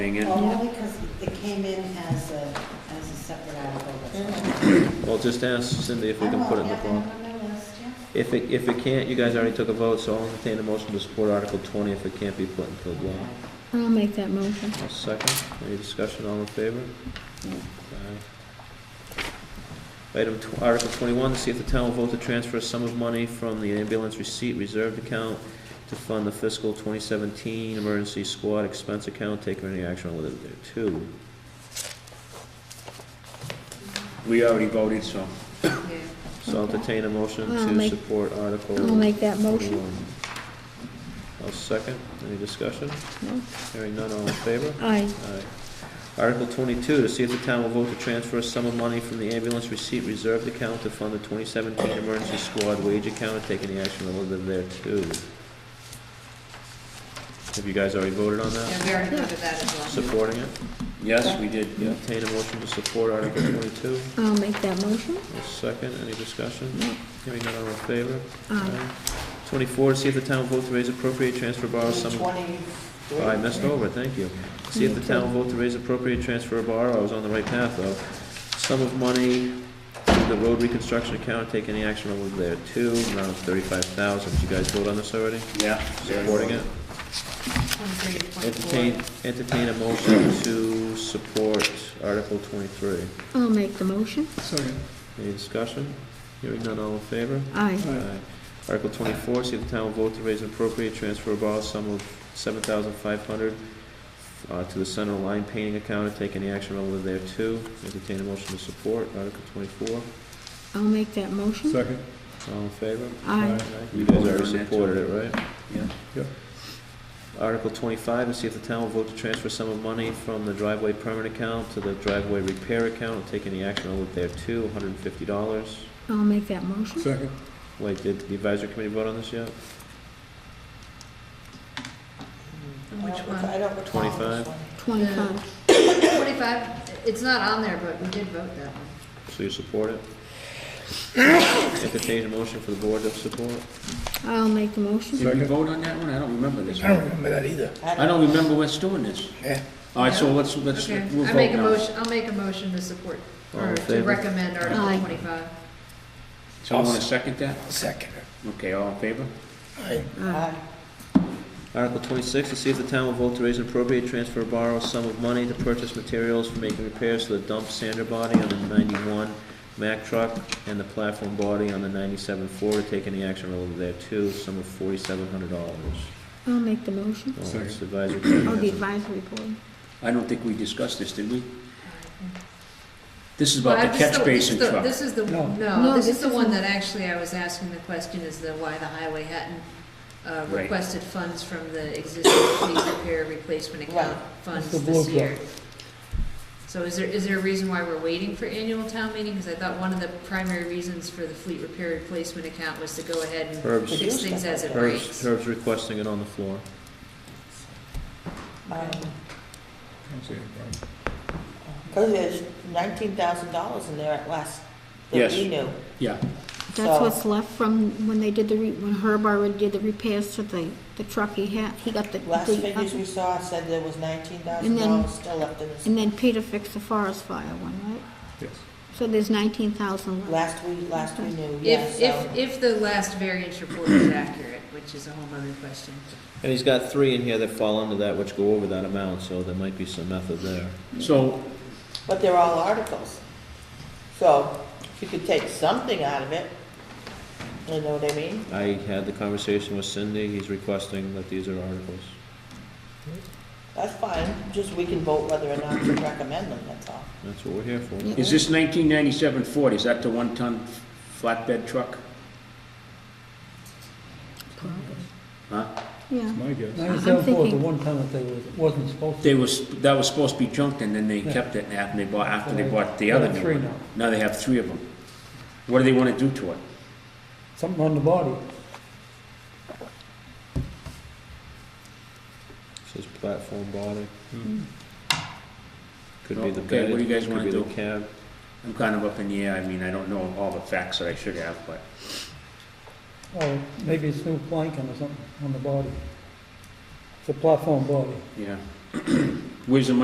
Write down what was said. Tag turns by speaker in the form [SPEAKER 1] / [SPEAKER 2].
[SPEAKER 1] thing in.
[SPEAKER 2] Well, only because it came in as a, as a separate article. that's all.
[SPEAKER 3] Well, just ask Cindy if we can put it in the
[SPEAKER 2] I will
[SPEAKER 3] form.
[SPEAKER 2] have it on my list, yeah.
[SPEAKER 3] If it, if it can't, you guys already took a vote, so I'll entertain a motion to support Article 20 if it can't be put into the law.
[SPEAKER 4] I'll make that motion.
[SPEAKER 3] A second, any discussion, all in favor? Aye. Item, tw- Article twenty-one, to see if the town will vote to transfer a sum of money from the ambulance receipt reserved account to fund the fiscal twenty seventeen emergency squad expense account, take any action relative thereto.
[SPEAKER 1] We already voted, so.
[SPEAKER 3] So I'll entertain a motion
[SPEAKER 4] I'll
[SPEAKER 3] to
[SPEAKER 4] make-
[SPEAKER 3] support Article
[SPEAKER 4] I'll
[SPEAKER 3] twenty-one.
[SPEAKER 4] make that motion.
[SPEAKER 3] I'll second, any discussion?
[SPEAKER 4] No.
[SPEAKER 3] Hearing none, all in favor?
[SPEAKER 4] Aye.
[SPEAKER 3] Alright. Article twenty-two, to see if the town will vote to transfer a sum of money from the ambulance receipt reserved account to fund the twenty seventeen emergency squad wage account and take any action relative thereto. Have you guys already voted on that?
[SPEAKER 5] Yeah, we already voted that as well.
[SPEAKER 3] Supporting it?
[SPEAKER 1] Yes, we did, yeah.
[SPEAKER 3] Entertain a motion to support Article twenty-two.
[SPEAKER 4] I'll make that motion.
[SPEAKER 3] A second, any discussion?
[SPEAKER 4] No.
[SPEAKER 3] Hearing none, all in favor?
[SPEAKER 4] Aye.
[SPEAKER 3] Twenty-four, to see if the town will vote to raise appropriate transfer borrow sum of
[SPEAKER 2] Twenty-three.
[SPEAKER 3] Oh, I messed over, thank you. See if the town will vote to raise appropriate transfer or borrow, I was on the right path though. Sum of money to the road reconstruction account, take any action over there too, amount of thirty-five thousand, did you guys vote on this already?
[SPEAKER 1] Yeah.
[SPEAKER 3] Supporting it?
[SPEAKER 5] Twenty-three,
[SPEAKER 3] Entertain,
[SPEAKER 5] twenty-four.
[SPEAKER 3] entertain a motion to support Article twenty-three.
[SPEAKER 4] I'll make the motion.
[SPEAKER 6] Second.
[SPEAKER 3] Any discussion? Hearing none, all in favor?
[SPEAKER 4] Aye.
[SPEAKER 6] Aye.
[SPEAKER 3] Article twenty-four, see if the town will vote to raise and appropriate transfer or borrow sum of seven thousand five hundred uh, to the center line painting account and take any action relative thereto. Entertain a motion to support Article twenty-four.
[SPEAKER 4] I'll make that motion.
[SPEAKER 6] Second.
[SPEAKER 3] All in favor?
[SPEAKER 4] Aye.
[SPEAKER 3] You guys already supported it, right?
[SPEAKER 1] Yeah.
[SPEAKER 3] Article twenty-five, to see if the town will vote to transfer sum of money from the driveway permit account to the driveway repair account and take any action relative thereto, hundred and fifty dollars.
[SPEAKER 4] I'll make that motion.
[SPEAKER 6] Second.
[SPEAKER 3] Wait, did the advisory committee vote on this yet?
[SPEAKER 2] I
[SPEAKER 5] Which
[SPEAKER 2] don't-
[SPEAKER 5] one?
[SPEAKER 2] I don't recall.
[SPEAKER 3] Twenty-five?
[SPEAKER 4] Twenty-five.
[SPEAKER 5] Twenty-five, it's not on there, but we did vote that one.
[SPEAKER 3] So you support it? Entertain a motion for the board to support?
[SPEAKER 4] I'll make the motion.
[SPEAKER 1] Did we
[SPEAKER 6] Second.
[SPEAKER 1] vote on that one? I don't remember this
[SPEAKER 7] I don't
[SPEAKER 1] one.
[SPEAKER 7] remember that either.
[SPEAKER 1] I don't remember what's doing this.
[SPEAKER 7] Yeah.
[SPEAKER 1] All right, so let's, let's,
[SPEAKER 5] Okay,
[SPEAKER 1] we'll
[SPEAKER 5] I
[SPEAKER 1] vote
[SPEAKER 5] make a
[SPEAKER 1] now.
[SPEAKER 5] motion, I'll make a motion to support,
[SPEAKER 3] All in
[SPEAKER 5] or to
[SPEAKER 3] favor?
[SPEAKER 5] recommend
[SPEAKER 4] Aye.
[SPEAKER 5] Article twenty-five.
[SPEAKER 1] Someone want to second that?
[SPEAKER 7] Second.
[SPEAKER 1] Okay, all in favor?
[SPEAKER 7] I,
[SPEAKER 2] Aye.
[SPEAKER 3] Article twenty-six, to see if the town will vote to raise an appropriate transfer or borrow sum of money to purchase materials for making repairs to the dump sander body on the ninety-one Mack truck and the platform body on the ninety-seven Ford, to take any action relative thereto, sum of forty-seven hundred dollars.
[SPEAKER 4] I'll make the motion.
[SPEAKER 3] It's
[SPEAKER 6] Second.
[SPEAKER 3] advisory
[SPEAKER 4] Oh, the
[SPEAKER 3] committee. hasn't-
[SPEAKER 4] advisory board.
[SPEAKER 1] I don't think we discussed this, did we? This is
[SPEAKER 5] Well,
[SPEAKER 1] about
[SPEAKER 5] I
[SPEAKER 1] the
[SPEAKER 5] just
[SPEAKER 1] catch
[SPEAKER 5] thought- this
[SPEAKER 1] basin
[SPEAKER 5] is the-
[SPEAKER 1] truck.
[SPEAKER 5] This is the,
[SPEAKER 7] No.
[SPEAKER 5] no,
[SPEAKER 4] No,
[SPEAKER 5] this
[SPEAKER 4] this
[SPEAKER 5] is the one
[SPEAKER 4] isn't.
[SPEAKER 5] that actually I was asking the question is the, why the highway hadn't uh,
[SPEAKER 1] Right.
[SPEAKER 5] requested funds from the existing fleet repair replacement account
[SPEAKER 2] Right.
[SPEAKER 5] funds
[SPEAKER 7] It's the
[SPEAKER 5] this
[SPEAKER 7] blue
[SPEAKER 5] year. So is there, is there a reason why we're waiting for annual town meeting? Because I thought one of the primary reasons for the fleet repair replacement account was to go ahead and
[SPEAKER 3] Herb's,
[SPEAKER 5] fix things as it
[SPEAKER 3] Herb's,
[SPEAKER 5] breaks.
[SPEAKER 3] Herb's requesting it on the floor.
[SPEAKER 8] Uh, um,
[SPEAKER 6] Don't see any problem.
[SPEAKER 8] Because there's nineteen thousand dollars in there at last, that
[SPEAKER 1] Yes.
[SPEAKER 8] we knew.
[SPEAKER 1] Yeah,
[SPEAKER 4] That's
[SPEAKER 8] So-
[SPEAKER 4] what's left from when they did the, re- when Herb already did the repairs to the, the truck he had. He got the.
[SPEAKER 8] Last
[SPEAKER 4] the-
[SPEAKER 8] figures we saw said there was nineteen
[SPEAKER 4] And
[SPEAKER 8] thousand
[SPEAKER 4] then-
[SPEAKER 8] dollars still left in this,
[SPEAKER 4] And then Peter fixed the forest fire one, right?
[SPEAKER 6] Yes.
[SPEAKER 4] So there's nineteen thousand left.
[SPEAKER 8] last we, last we knew, yeah,
[SPEAKER 5] If,
[SPEAKER 8] so.
[SPEAKER 5] if, if the last variance report is accurate, which is a whole nother question.
[SPEAKER 3] And he's got three in here that fall under that, which go over that amount, so there might be some method there.
[SPEAKER 1] so,
[SPEAKER 8] But they're all articles. So if you could take something out of it, you know what I mean?
[SPEAKER 3] I had the conversation with Cindy, he's requesting that these are articles.
[SPEAKER 8] That's fine, just we can vote whether or not to recommend them, that's all.
[SPEAKER 3] That's what we're here for.
[SPEAKER 4] Yeah.
[SPEAKER 1] is this nineteen ninety-seven Ford, is that the one-ton flatbed truck? Huh?
[SPEAKER 4] Yeah.
[SPEAKER 6] That's my guess.
[SPEAKER 4] I'm
[SPEAKER 7] Ninety-seven four, the
[SPEAKER 4] thinking-
[SPEAKER 7] one time that they was, wasn't supposed to.
[SPEAKER 1] They was, that was supposed to be junked, and then they
[SPEAKER 7] Yeah.
[SPEAKER 1] kept it after they bought, after they
[SPEAKER 7] They-
[SPEAKER 1] bought the
[SPEAKER 7] they
[SPEAKER 1] other
[SPEAKER 7] have
[SPEAKER 1] new
[SPEAKER 7] three
[SPEAKER 1] one.
[SPEAKER 7] now.
[SPEAKER 1] Now they have three of them. What do they wanna do to it?
[SPEAKER 7] Something on the body.
[SPEAKER 3] Says platform body. Could be the
[SPEAKER 1] Okay,
[SPEAKER 3] bed,
[SPEAKER 1] what do you guys
[SPEAKER 3] could
[SPEAKER 1] wanna
[SPEAKER 3] be the
[SPEAKER 1] do?
[SPEAKER 3] cab.
[SPEAKER 1] I'm kind of up in the air, I mean, I don't know all the facts that I should have, but
[SPEAKER 7] Or maybe it's new planking or something on the body. It's a platform body.
[SPEAKER 1] Yeah, Where's the money